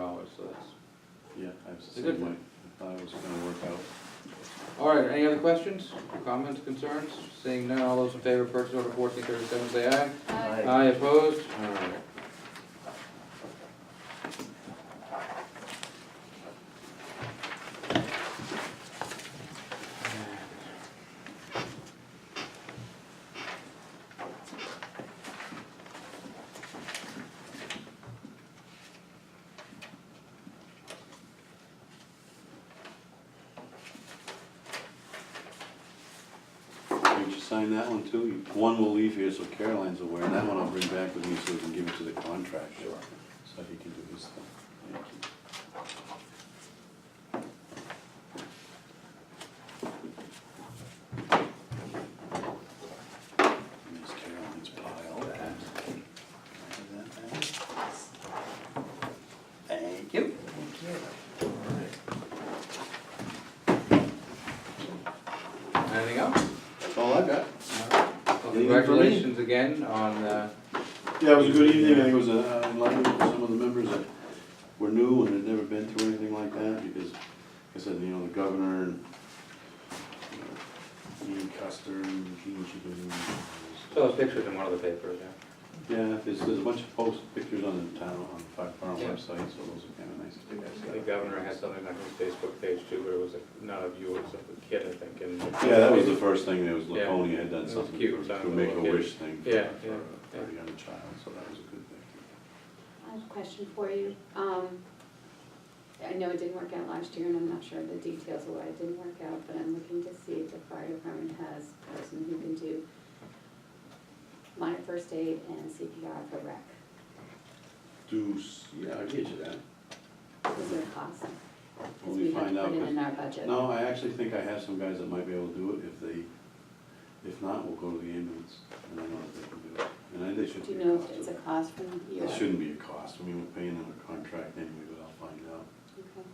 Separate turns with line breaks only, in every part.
Oh,
times, it
It's a good
seemed like, I thought it was gonna work out.
All right, any other questions, comments, concerns? Seeing none, all those in favor of purchase order fourteen thirty-seven, say aye.
Aye.
Aye opposed?
All right. Why don't you sign that one too? One will leave here so Caroline's aware, and that one I'll bring back with me so we can give it to the contractor. So he can do his thing. Thank you. There's Caroline's pile that. Thank you.
Anything else?
That's all I got.
Well,
Anything for me?
Congratulations again on, uh,
Yeah, it was a good evening, I think it was uh, enlightening for some of the members that were new and had never been through anything like that, because, like I said, you know, the governor and you know, Ian Custer and Gene Chicken.
saw those pictures in one of the papers, yeah.
Yeah, there's, there's a bunch of post pictures on the town, on the Fox Farm
Yeah.
website, so those are kinda nice to see.
The governor had something on his Facebook page too, where it was a- not of you, it was of a kid, I think, and.
Yeah, that was the first thing, there was
Yeah.
Laconia had
It
done
was
something
cute,
for,
down
for
the
make a
little
wish thing for,
Yeah, yeah,
for
yeah.
a young child, so that was a good thing.
I have a question for you. Um, I know it didn't work out last year, and I'm not sure of the details of why it didn't work out, but I'm looking to see if the fire department has a person who can do minor first aid and CPR for rec.
Deuce, yeah, I get you that.
Is there a cost?
When
Because
we
we have
find
to
out,
put it
'cause-
in our budget.
No, I actually think I have some guys that might be able to do it, if they, if not, we'll go to the ambulance, and I know that they can do it, and I, they should be
Do you
a
know
cost.
if it's a cost from you?
It shouldn't be a cost, I mean, we're paying them a contract anyway, but I'll find out,
Okay,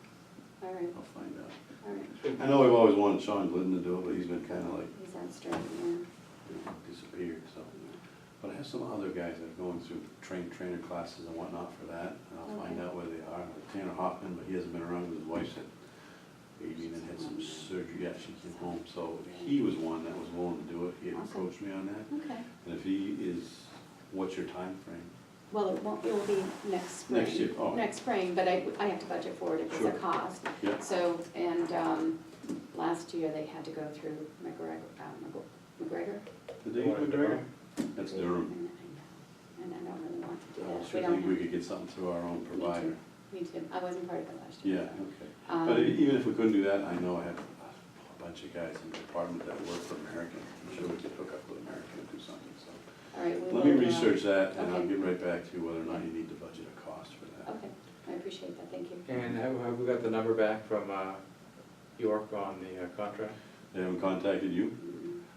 all right,
I'll find out.
all right.
I know I've always wanted Sean Glidden to do it, but he's been kinda like
He's on strike, yeah.
you know, disappeared, so. But I have some other guys that are going through train, trainer classes and whatnot for that, and I'll find
Okay.
out where they are. Like Tanner Hoffman, but he hasn't been around, 'cause his wife's had baby and then had some surgery, yeah, she came home, so he was one that was willing to do it, he had
Awesome.
approached me on that.
Okay.
And if he is, what's your time frame?
Well, it won't, it will be next spring.
Next year, oh.
Next spring, but I, I have to budget for it if it's a
Sure.
cost.
Yeah.
So, and, um, last year they had to go through McGregor, uh, McGregor,
The day you
Warren
Durham? That's Durham.
and I, and I don't really want to do
I
that. We
sure
don't
think Oh, we
have-
could get something through our own
me too,
provider.
Me too, I wasn't part of it last
Yeah,
year.
okay.
Um,
But e- even if we couldn't do that, I know I have a bunch of guys in the department that work for American. I'm sure we could hook up with American and do something, so.
All right, we will.
Let me
uh,
research that and I'll
Okay.
get right back to you whether or not you need to budget a cost for that.
Okay, I appreciate that, thank you.
And uh, have, have we got the number back from, uh, York on the uh, contract?
They haven't contacted you?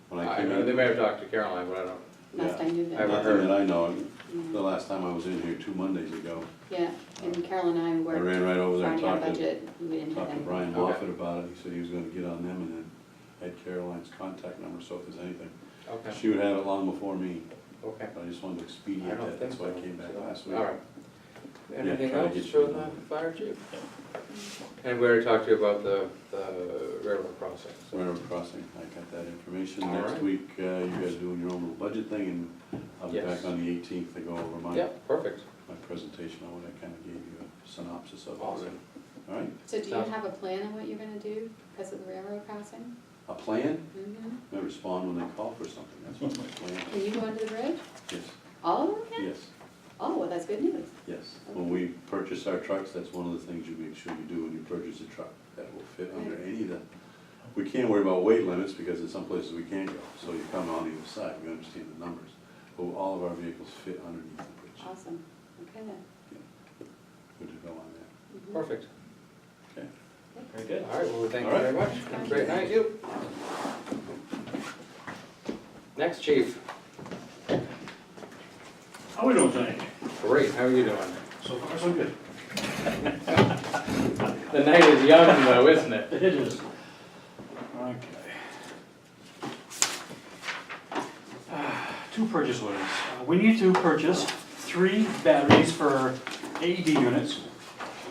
When I
I
came
know, they
in?
may have talked to Caroline, but I don't,
Last
yeah.
I knew
I-
that,
Nothing that I know. of. The
yeah,
last time I was in here, two Mondays ago,
yeah, and Carol and I
I
worked,
ran right Uh, over there and
finding our
talked to,
budget, we didn't have
talked to
anything.
Brian
Okay.
Moffett about it. He said he was gonna get on them and then had Caroline's contact number, so if there's anything.
okay,
She would have it long before me.
okay.
I just wanted to
I
expedite
don't
that,
think
that's why I
so.
came back
So,
last week.
All right. Anything
try to
else
get
for
you
the
another.
fire chief? And we already talked to you about the, the railroad crossing, so.
Railroad crossing, I got that information.
All
Next
right.
week, uh, you guys are doing your own little budget thing, and I'll be
Yes.
back on the eighteenth to go over my,
Yeah, perfect.
my presentation on what I kinda gave you a synopsis of already.
Awesome.
All right,
So do you
Sounds-
have a plan on what you're gonna do because of the railroad crossing?
a plan,
Mhm.
I respond when they call for something, that's what my plan
Can
is.
you go under the bridge?
Yes,
All of them?
yes,
Oh, well, that's good news.
yes. When we purchase our trucks, that's one of the things you make sure you do when you purchase a truck, that will fit under any of the, we can't worry about weight limits because in some places we can't go, so you come on either side, we understand the numbers. But all of our vehicles fit underneath the bridge.
Awesome. Okay then.
Good to go on that.
Mhm.
Perfect.
Okay.
Very good. All right, well, we thank you
All right.
very much. Have a great night. You. Next chief.
How Oh, we doing tonight?
Great, how are you doing?
So far, so good.
The night is young though, isn't it?
It is. Okay. Ah, Two purchase orders. Uh, We need to purchase three batteries for AED units